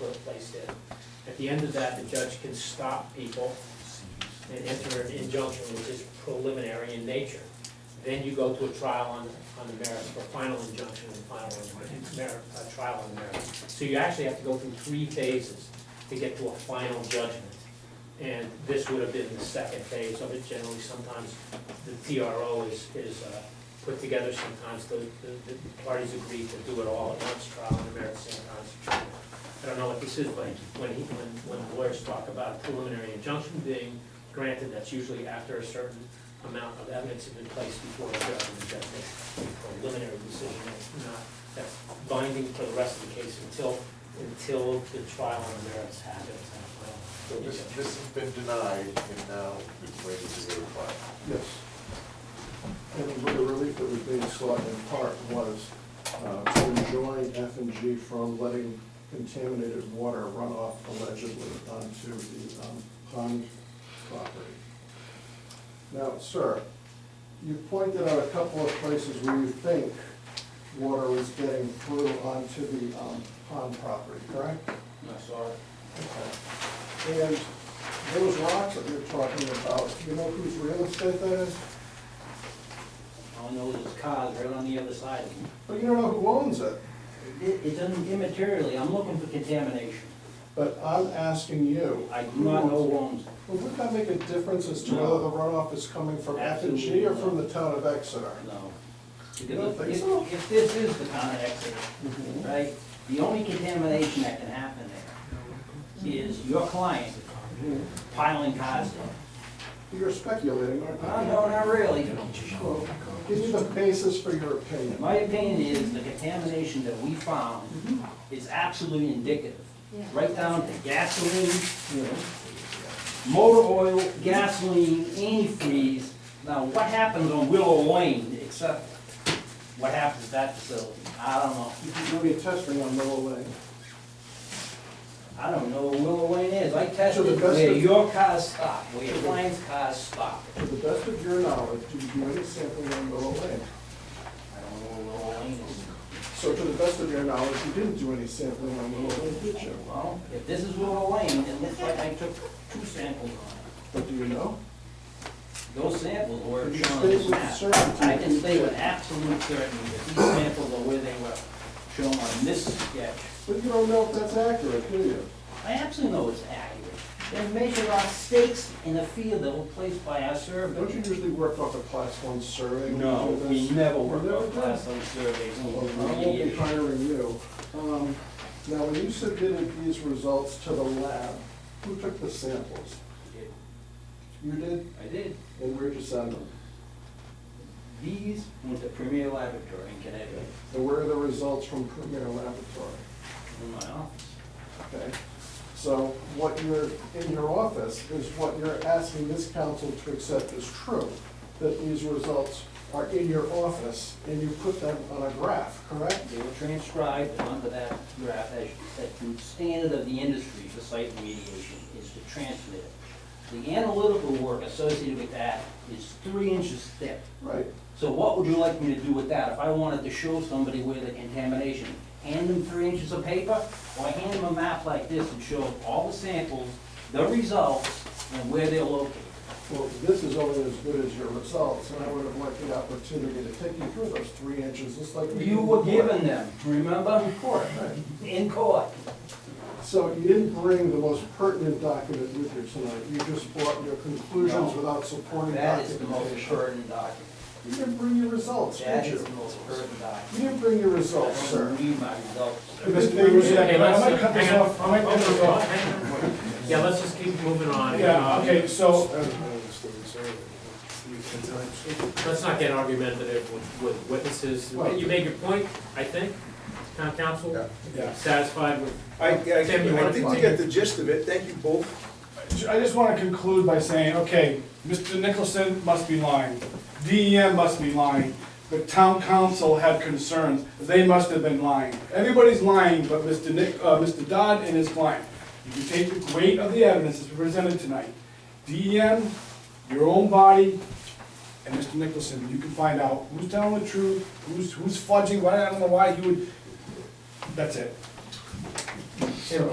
were placed in. At the end of that, the judge can stop people and enter an injunction which is preliminary in nature. Then you go to a trial on, on the merits for a final injunction and final merit, a trial on the merits. So you actually have to go through three phases to get to a final judgment. And this would have been the second phase of it. Generally, sometimes the PRO is, is uh, put together, sometimes the, the the parties agree to do it all at once, trial on the merits, sometimes. I don't know what this is, but when he, when, when lawyers talk about preliminary injunction being Granted, that's usually after a certain amount of evidence has been placed before a judge, and the judge makes a preliminary decision, that's not, that's binding for the rest of the case until, until the trial on the merits happens. So this, this has been denied, and now it's waiting to be replied. Yes. And the relief that was being sought in part was uh, to enjoin F and G from letting contaminated water run off allegedly onto the um, pond property. Now, sir, you pointed out a couple of places where you think water was getting through onto the um, pond property, correct? I saw it. Okay. And those rocks that you're talking about, do you know whose real estate that is? All I know is it's cars right on the other side of me. But you don't know who owns it. It, it doesn't immaterially, I'm looking for contamination. But I'm asking you. I do not know who owns it. Well, would that make a difference as to whether the runoff is coming from F and G or from the town of Exeter? No. You don't think Because so? if, if this is the kind of exit, right, the only contamination that can happen there is your client piling cars in. You're speculating, aren't you? No, no, not really. Well, Give me the basis for your opinion. My opinion is the contamination that we found is absolutely indicative. Right down to gasoline, motor oil, gasoline, antifreeze. Now, what happens on Willow Lane except what happens at that facility? I don't know. You can do any testing on Willow Lane. I don't know where Willow Lane is. I To the tested best where of- your cars stop, where your client's cars stop. To the best of your knowledge, do you do any sampling on Willow Lane? I don't know where Willow Lane is. So to the best of your knowledge, you didn't do any sampling on Willow Lane, did you? Well, if this is Willow Lane, it looks like I took two samples on it. But do you know? Those samples were Can you shown on state this with map. certainty? I can say with absolute certainty that these samples are where they were shown on this sketch. But you don't know if that's accurate, do you? I absolutely know it's accurate. They measured our stakes in a field that were placed by our Don't you survey. usually work off a class one survey? when you No, do we this? never You work never Oh, on did? class on surveys. Well, I won't be hiring you. Um, Now, when you submitted these results to the lab, who took the samples? You did? I did. And where'd you send them? These went to Premier Laboratory in Connecticut, And where are the results from Premier Laboratory? in my office. Okay? So what you're, in your office is what you're asking this council to accept as true, that these results are in your office and you put them on a graph, correct? They were transcribed onto that graph as, that the standard of the industry for site remediation is to transmit it. The analytical work associated with that is three inches thick. Right. So what would you like me to do with that? If I wanted to show somebody where the contamination, hand them three inches of paper? Or hand them a map like this and show all the samples, the results, and where they're located? Well, this is only as good as your results, and I would have liked the opportunity to take you through those three inches, just like. we did You were before. given them, remember? Before, right. In court. So you didn't bring the most pertinent document with you tonight, you just brought your conclusions No. without supporting That is the most documentation. pertinent document. You didn't bring your results, That did is you? the most pertinent You document. didn't bring your results, I sir. don't need my results. Mr. Davis, Yeah, I okay, let's- might cut this hang on. Oh, off, I might cut this off. Yeah, let's just keep moving on. Yeah, okay, so, Let's not get argumentative with, with witnesses. You made your point, I think, town council, yeah. satisfied with, I, I Tim, you wanna I think you got the gist of it, thank you both. I just want to conclude by saying, okay, Mr. Nicholson must be lying, DEM must be lying, the town council had concerns, they must have been lying. Everybody's lying but Mr. Nick, uh, Mr. Dodd and his client. You can take the weight of the evidence that's presented tonight. DEM, your own body, and Mr. Nicholson, you can find out who's telling the truth, who's, who's fudging, why, I don't know why you would, that's it. Tim,